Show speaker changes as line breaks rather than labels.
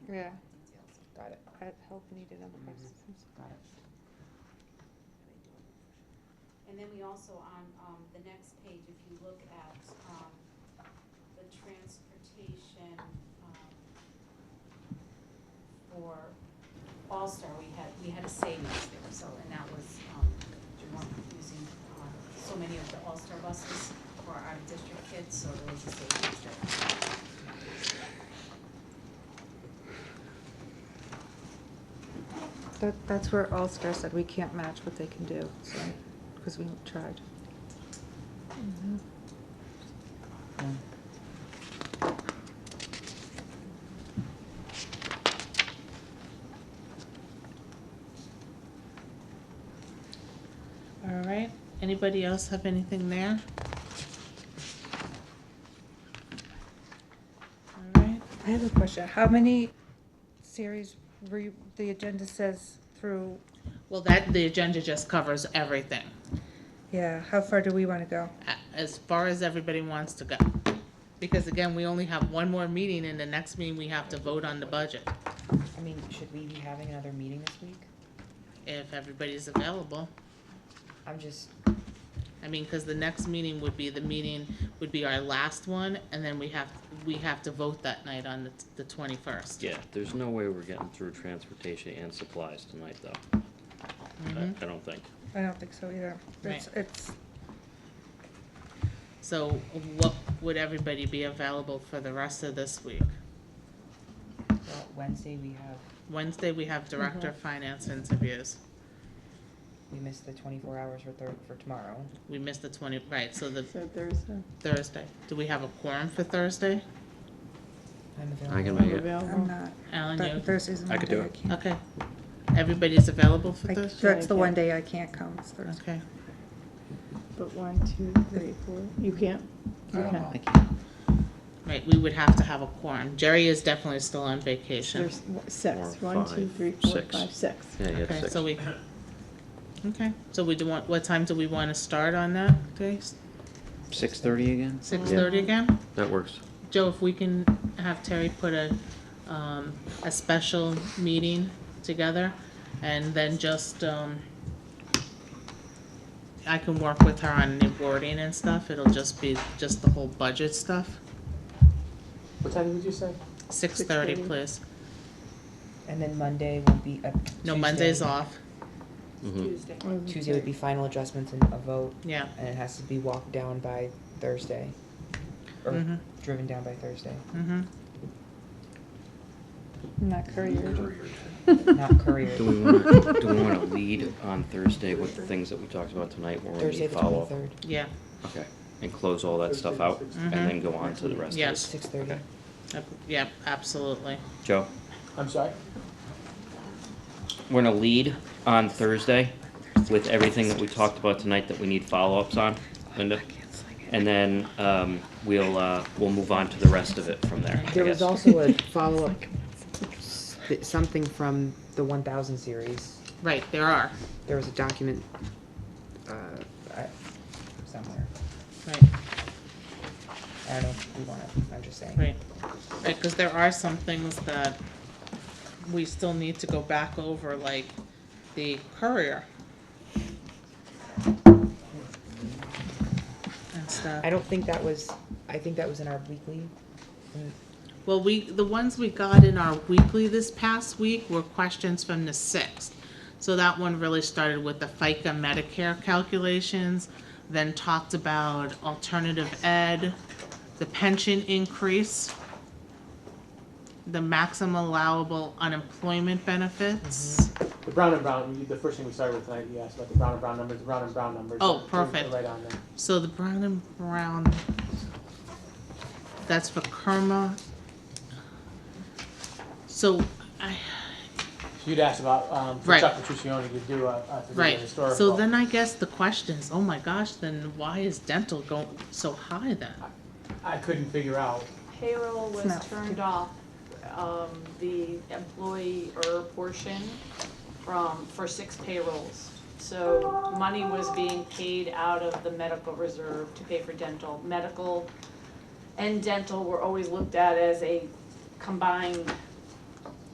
Yeah,
details.
got it, Got help needed on the
Mhm.
prices.
Got it.
And then we also on, um, the next page, if you look at, um, the transportation, um, for All-Star, we had, we had a savings there, so, and that was, um, we weren't using, um, so many of the All-Star buses for our district kids, so there was a savings there.
That, that's where All-Star said we can't match what they can do, so, because we tried.
Yeah.
All right, anybody else have anything there? All right,
I have a question. How many series were you, the agenda says through,
well, that, the agenda just covers everything,
yeah, how far do we want to go?
a- as far as everybody wants to go. Because again, we only have one more meeting, and the next meeting, we have to vote on the budget,
I mean, should we be having another meeting this week?
if everybody's available.
I'm just,
I mean, because the next meeting would be, the meeting would be our last one, and then we have, we have to vote that night on the, the twenty-first.
Yeah, there's no way we're getting through transportation and supplies tonight, though. I,
Mm-hmm.
I don't think.
I don't think so either. It's, it's,
So what would everybody be available for the rest of this week?
well, Wednesday we have,
Wednesday, we have Director of Finance interviews.
we missed the twenty-four hours for thir- for tomorrow.
We missed the twenty, right, so the
So Thursday,
Thursday. Do we have a quorum for Thursday?
I'm available.
I can make it.
I'm
available.
not,
Oh, Alan,
but
you?
Thursday's
I
my
could
day,
do
I
it.
can't.
Okay. Everybody's available for
I-
Thursday?
That's the one day I can't come, it's Thursday.
Okay.
But one, two, three, four, you can't? Okay.
I can't.
Right, we would have to have a quorum. Jerry is definitely still on vacation.
There's six,
Four,
one, two,
five,
three, four,
six.
five, six.
Yeah, you had
Okay,
six.
so we, okay, so we do want, what time do we want to start on that day?
Six thirty again?
Six thirty again?
That works.
Joe, if we can have Terry put a, um, a special meeting together and then just, um, I can work with her on the wording and stuff. It'll just be, just the whole budget stuff.
What time did you say?
Six thirty,
6:30.
please.
And then Monday will be a.
No,
Tuesday-
Monday's off.
Mhm.
Tuesday would be final adjustments and a vote,
Yeah.
and it has to be walked down by Thursday. Or
Mhm.
driven down by Thursday,
Mm-hmm.
Not courier.
not courier.
Do we wanna, do we wanna lead on Thursday with the things that we talked about tonight, where we
Thursday
need
the
follow?
twenty-third,
Yeah,
Okay, and close all that stuff out, and
Mhm.
then go on to the rest of
Yes.
us.
six thirty.
Okay.
Ab- yeah, absolutely.
Joe,
I'm sorry?
we're gonna lead on Thursday with everything that we talked about tonight that we need follow-ups on, Linda? And then, um, we'll, uh, we'll move on to the rest of it from there, I
There was
guess.
also a follow-up, s- th- something from the one thousand series.
Right, there are.
There was a document, uh, I, somewhere.
Right,
I don't know if we want it, I'm just saying.
right. Right, because there are some things that we still need to go back over, like the courier. And stuff.
I don't think that was, I think that was in our weekly, mm,
Well, we, the ones we got in our weekly this past week were questions from the sixth. So that one really started with the FICA Medicare calculations, then talked about alternative ed, the pension increase, the maximum allowable unemployment benefits.
The Brown and Brown, you- the first thing we started with tonight, you asked about the Brown and Brown numbers, the Brown and Brown numbers.
Oh,
they're-
perfect.
They're right on there.
So the Brown and Brown, that's for Kerma. So I,
You'd asked about, um, for
Right.
Chuck Petruccioni to do a, a
Right,
historical.
so then I guess the question is, oh my gosh, then why is dental going so high then?
I couldn't figure out,
payroll was
not-
turned off, um, the employer portion from, for six payrolls. So money was being paid out of the medical reserve to pay for dental. Medical and dental were always looked at as a combined